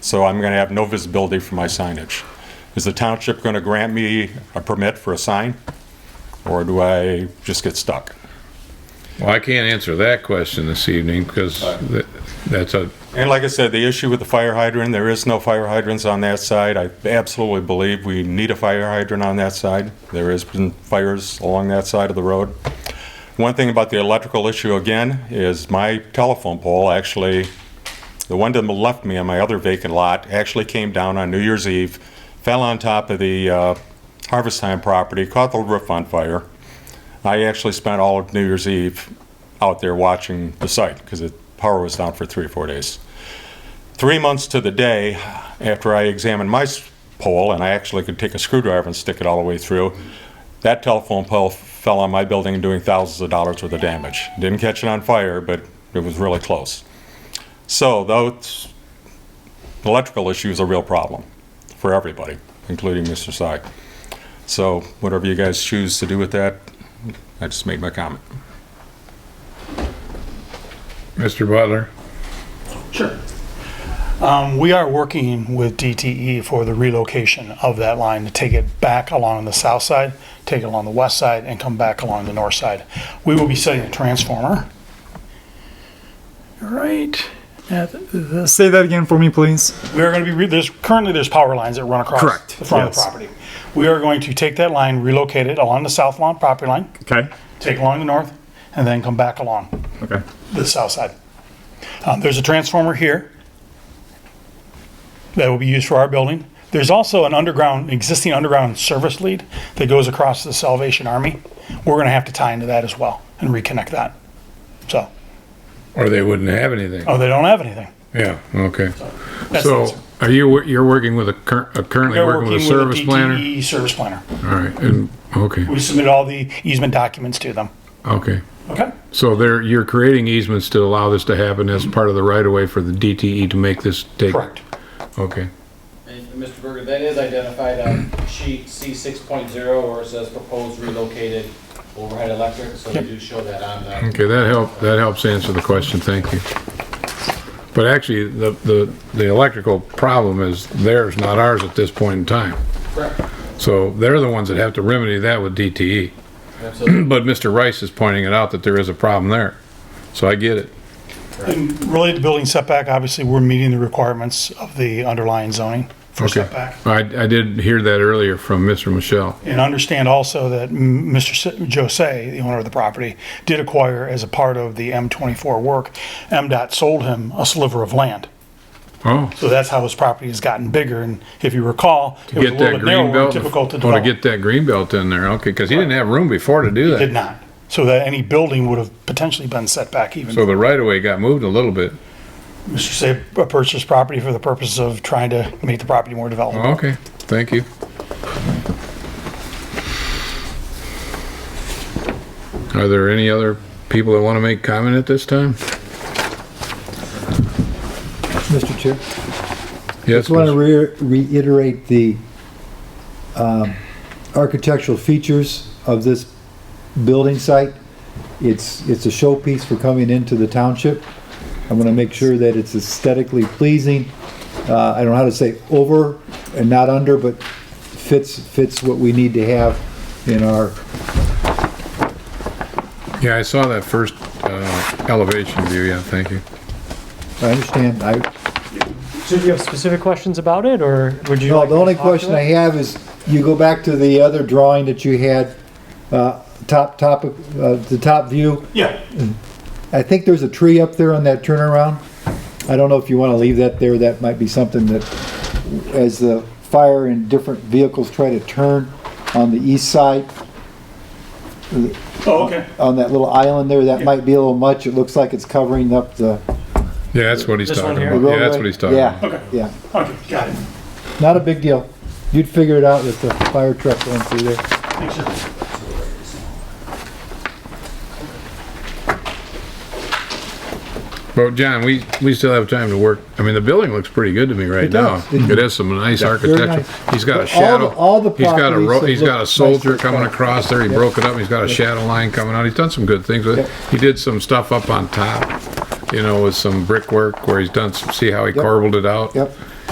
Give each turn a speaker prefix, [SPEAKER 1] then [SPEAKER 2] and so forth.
[SPEAKER 1] so I'm going to have no visibility for my signage. Is the township going to grant me a permit for a sign, or do I just get stuck?
[SPEAKER 2] Well, I can't answer that question this evening because th- that's a,
[SPEAKER 1] And like I said, the issue with the fire hydrant, there is no fire hydrants on that side. I absolutely believe we need a fire hydrant on that side. There has been fires along that side of the road. One thing about the electrical issue again is my telephone pole actually, the one that left me on my other vacant lot, actually came down on New Year's Eve, fell on top of the uh, Harvest Time property, caught the roof on fire. I actually spent all of New Year's Eve out there watching the site because the power was down for three or four days. Three months to the day after I examined my s- pole, and I actually could take a screwdriver and stick it all the way through, that telephone pole fell on my building, doing thousands of dollars worth of damage. Didn't catch it on fire, but it was really close. So those electrical issue is a real problem for everybody, including Mr. Sy. So whatever you guys choose to do with that, I just made my comment.
[SPEAKER 2] Mr. Butler.
[SPEAKER 3] Sure. Um, We are working with DTE for the relocation of that line to take it back along the south side, take it along the west side, and come back along the north side. We will be setting a transformer. All right. at
[SPEAKER 4] Uh, Say that again for me, please.
[SPEAKER 3] we are going to be, re- there's, currently there's power lines that run across
[SPEAKER 4] Correct,
[SPEAKER 3] the front of the
[SPEAKER 4] yes.
[SPEAKER 3] property. We are going to take that line, relocate it along the south lawn property line,
[SPEAKER 4] Okay.
[SPEAKER 3] take it along the north, and then come back along
[SPEAKER 4] Okay.
[SPEAKER 3] the south side. Um, there's a transformer here that will be used for our building. There's also an underground, existing underground service lead that goes across the Salvation Army. We're going to have to tie into that as well and reconnect that. So,
[SPEAKER 2] Or they wouldn't have anything.
[SPEAKER 3] oh, they don't have anything.
[SPEAKER 2] Yeah, okay.
[SPEAKER 3] That's the
[SPEAKER 2] So
[SPEAKER 3] answer.
[SPEAKER 2] are you, wor- you're working with a cur- uh, currently
[SPEAKER 3] They're
[SPEAKER 2] working with a E. service planner?
[SPEAKER 3] DTE E service planner.
[SPEAKER 2] All right, and, okay,
[SPEAKER 3] We submitted all the easement documents to them.
[SPEAKER 2] okay.
[SPEAKER 3] Okay.
[SPEAKER 2] So there, you're creating easements to allow this to happen as part of the right of way for the DTE to make this take?
[SPEAKER 3] Correct.
[SPEAKER 2] Okay,
[SPEAKER 5] And Mr. Berger, that is identified on sheet C six point zero where it says proposed relocated overhead electric, so we do show that on the.
[SPEAKER 2] okay, that help, that helps answer the question, thank you. But actually, the, the, the electrical problem is theirs, not ours at this point in time.
[SPEAKER 5] Correct.
[SPEAKER 2] So they're the ones that have to remedy that with DTE.
[SPEAKER 5] Absolutely.
[SPEAKER 2] But Mr. Rice is pointing it out that there is a problem there. So I get it.
[SPEAKER 3] And related to building setback, obviously, we're meeting the requirements of the underlying zoning for setback.
[SPEAKER 2] I, I did hear that earlier from Mr. Michelle.
[SPEAKER 3] And understand also that M- Mr. S- Jose, the owner of the property, did acquire as a part of the M24 work, MDOT sold him a sliver of land.
[SPEAKER 2] Oh,
[SPEAKER 3] So that's how his property has gotten bigger. And if you recall, it was a
[SPEAKER 2] get
[SPEAKER 3] little
[SPEAKER 2] that
[SPEAKER 3] bit
[SPEAKER 2] green
[SPEAKER 3] narrower, and
[SPEAKER 2] belt.
[SPEAKER 3] difficult to
[SPEAKER 2] Oh, to
[SPEAKER 3] develop.
[SPEAKER 2] get that green belt in there, okay, because he didn't have room before to do
[SPEAKER 3] Did
[SPEAKER 2] that.
[SPEAKER 3] not. So that any building would have potentially been set back even.
[SPEAKER 2] So the right of way got moved a little bit.
[SPEAKER 3] Mr. Jose uh, purchased property for the purpose of trying to make the property more developable.
[SPEAKER 2] Okay, thank you. Are there any other people that want to make comment at this time?
[SPEAKER 6] Mr. Chair,
[SPEAKER 2] Yes,
[SPEAKER 6] just want to
[SPEAKER 2] Mr.
[SPEAKER 6] re- reiterate the um, architectural features of this building site. It's, it's a showpiece for coming into the township. I want to make sure that it's aesthetically pleasing. Uh, I don't know how to say over and not under, but fits, fits what we need to have in our,
[SPEAKER 2] yeah, I saw that first uh, elevation view, yeah, thank you.
[SPEAKER 6] I understand, I,
[SPEAKER 7] Did you have specific questions about it, or would you?
[SPEAKER 6] No,
[SPEAKER 7] like
[SPEAKER 6] the
[SPEAKER 7] me to
[SPEAKER 6] only
[SPEAKER 7] talk to
[SPEAKER 6] question
[SPEAKER 7] it?
[SPEAKER 6] I have is, you go back to the other drawing that you had, uh, top, top, uh, the top view.
[SPEAKER 2] Uh-huh.
[SPEAKER 3] Yeah.
[SPEAKER 6] I think there's a tree up there on that turnaround. I don't know if you want to leave that there, that might be something that, as the fire and different vehicles try to turn on the east side,
[SPEAKER 3] Oh, okay.
[SPEAKER 6] on that little island there, that might be a little much, it looks like it's covering up the
[SPEAKER 2] Yeah, that's what he's
[SPEAKER 7] This one
[SPEAKER 2] talking
[SPEAKER 7] here?
[SPEAKER 6] the
[SPEAKER 2] about.
[SPEAKER 6] roadway.
[SPEAKER 2] Yeah, that's what he's talking about.
[SPEAKER 6] Yeah, yeah,
[SPEAKER 3] Okay, got it.
[SPEAKER 6] not a big deal. You'd figure it out with the fire truck going through there.
[SPEAKER 3] Thanks, sir.
[SPEAKER 2] But John, we, we still have time to work. I mean, the building looks pretty good to me right
[SPEAKER 6] It
[SPEAKER 2] now.
[SPEAKER 6] does.
[SPEAKER 2] It has some nice
[SPEAKER 6] very
[SPEAKER 2] architecture.
[SPEAKER 6] nice.
[SPEAKER 2] He's got a
[SPEAKER 6] But all
[SPEAKER 2] shadow.
[SPEAKER 6] the- all the
[SPEAKER 2] He's got a, ro-
[SPEAKER 6] properties
[SPEAKER 2] he's
[SPEAKER 6] look
[SPEAKER 2] got a
[SPEAKER 6] nice
[SPEAKER 2] soldier
[SPEAKER 6] so far.
[SPEAKER 2] coming across there. He broke it up. He's got a shadow line coming out. He's done some good things with it.
[SPEAKER 6] Yep.
[SPEAKER 2] He did some stuff up on top, you know, with some brickwork where he's done some, see how he
[SPEAKER 6] Yep.
[SPEAKER 2] corbelled it out?
[SPEAKER 6] Yep.